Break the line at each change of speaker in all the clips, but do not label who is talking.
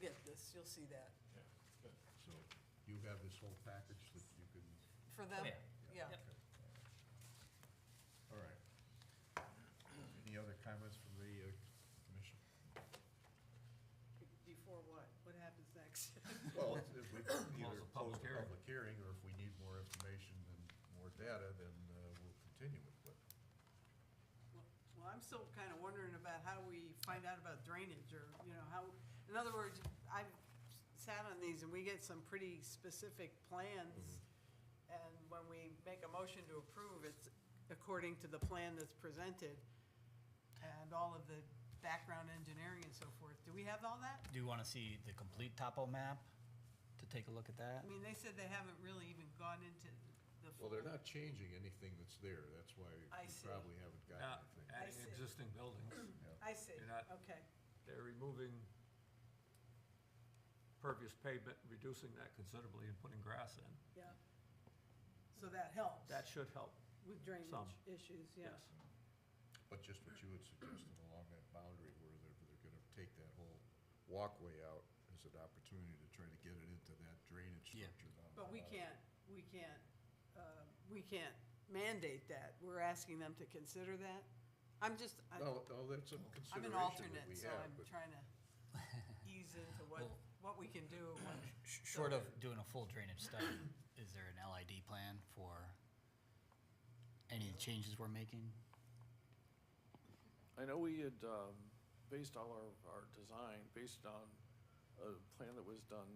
get this, you'll see that.
Yeah, good.
So you have this whole package that you can,
For them,
yeah.
yeah.
Yep.
okay. All right. Any other comments from the uh, commission?
Before what? What happens next?
Well, if we
Well,
either
it's
close
a public
the
hearing.
public hearing, or if we need more information and more data, then uh, we'll continue it, but.
Well, I'm still kind of wondering about how we find out about drainage or, you know, how, in other words, I've sat on these and we get some pretty specific plans. And when we make a motion to approve, it's according to the plan that's presented and all of the background engineering and so forth. Do we have all that?
Do you want to see the complete topo map to take a look at
I
that?
mean, they said they haven't really even gone into the full.
Well, they're not changing anything that's there, that's why
I
we
see.
probably haven't gotten
Not
anything.
adding
see.
existing buildings.
I see,
You're not-
okay.
They're removing pervious pavement, reducing that considerably and putting grass in.
Yeah. So that helps.
That should help,
With
Some.
drainage issues, yeah.
yes.
But just what you had suggested along that boundary where they're, they're gonna take that whole walkway out as an opportunity to try to get it into that drainage
Yeah.
structure down.
But
the
we
bottom.
can't, we can't, uh, we can't mandate that. We're asking them to consider that. I'm just, I-
No, no, that's a
I'm
consideration
an
that
alternate,
we
so
have,
I'm
but
trying to ease into what,
Well-
what we can do. and what-
Sh- Short of doing a full drainage study, is there an LID plan for any of the changes we're making?
I know we had, um, based all our, our design, based on a plan that was done,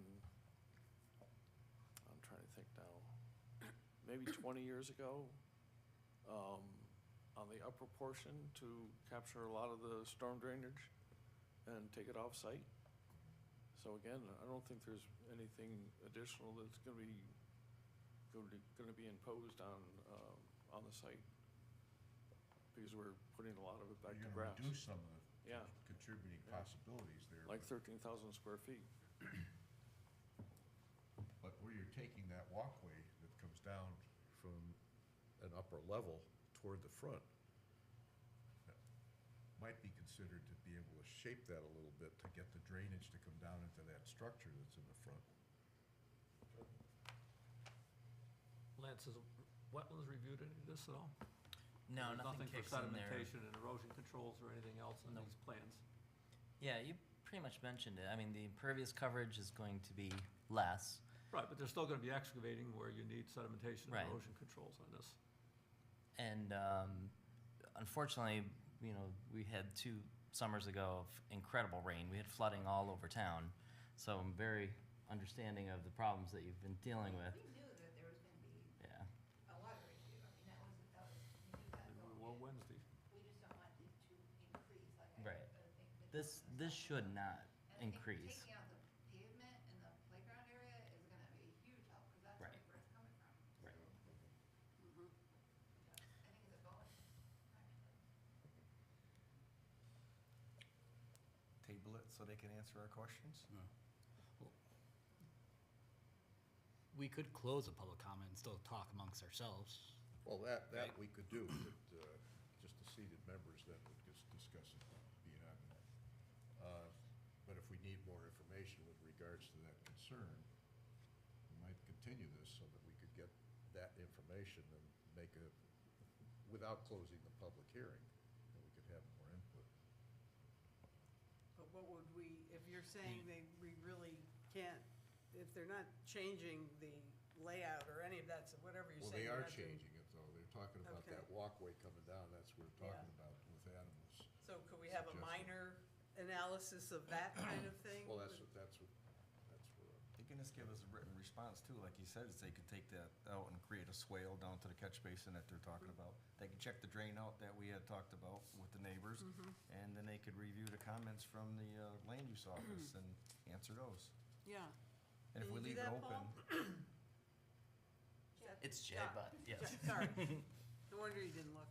I'm trying to think now, maybe twenty years ago, um, on the upper portion to capture a lot of the storm drainage and take it off-site. So again, I don't think there's anything additional that's gonna be, gonna, be- gonna be imposed on, um, on the site, because we're putting a lot of it back to
you're gonna
grass.
reduce some of the
Yeah.
contributing
Yeah.
possibilities there.
Like
but-
thirteen thousand square feet.
But where you're taking that walkway that comes down from an upper level toward the front, that might be considered to be able to shape that a little bit to get the drainage to come down into that structure that's in the front.
Lance, has wetlands reviewed any of this at all?
No,
There's
nothing kicks in
for
there.
sedimentation and erosion controls or anything else in these plans?
Yeah, you pretty much mentioned it. I mean, the impervious coverage is going to be less.
Right, but they're still gonna be excavating where you need sedimentation
Right.
and erosion controls on this.
And um, unfortunately, you know, we had two summers ago of incredible rain. We had flooding all over town. So I'm very understanding of the problems that you've been dealing with.
We knew that there was gonna be
Yeah.
a water issue, I mean, that was, that was, we knew that
And
going
Well,
in.
Wednesday,
We just don't want it to increase, like I.
Right.
I think the-
This this should not
And I think
increase.
Taking out the pavement in the playground area is gonna be a huge help, cause that's
Right.
where it's coming from.
Right.
Yeah, I think it's a bonus, actually.
table it so they can answer our questions?
We could close the public comment and still talk amongst ourselves.
Well, that, that we could do, but, uh, just the seated members then would just discuss it beyond that. Uh, But if we need more information with regards to that concern, we might continue this so that we could get that information and make a, without closing the public hearing, that we could have more input.
But what would we, if you're saying they, we really can't, if they're not changing the layout or any of that, so whatever you're
Well,
saying.
they
they're
are
not doing-
changing it though, they're talking about
Okay.
that walkway coming down, that's what we're
Yeah.
talking about with animals.
So could we have a
Suggestion.
minor analysis of that kind of thing?
Well, that's, what that's what, that's where I'm
They can just give us a written response too, like you said, is they could take that out and create a swale down to the catch basin that they're talking
Mm-hmm.
about. They can check the drain out that we had talked about with the neighbors,
Mm-hmm.
and then they could review the comments from the uh, land use office and answer those.
Yeah.
And if
Can
we
you do
leave it
that,
open,
Paul?
It's Jay,
Yeah.
but yes.
Yeah, Sorry. No wonder you didn't look.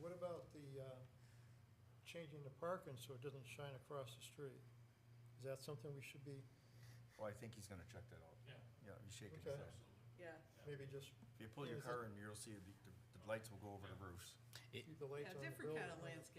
What about the, uh, changing the parking so it doesn't shine across the street? Is that something we should be,
well, I think he's gonna check that out.
Yeah.
Yeah, he's shaking his
Okay.
head.
Yeah.
maybe just
If you pull your
Is it-
car in, you'll see the, the- the lights will go over the roofs.
keep the
Yeah,
lights on the
different
building?
kind of landscape.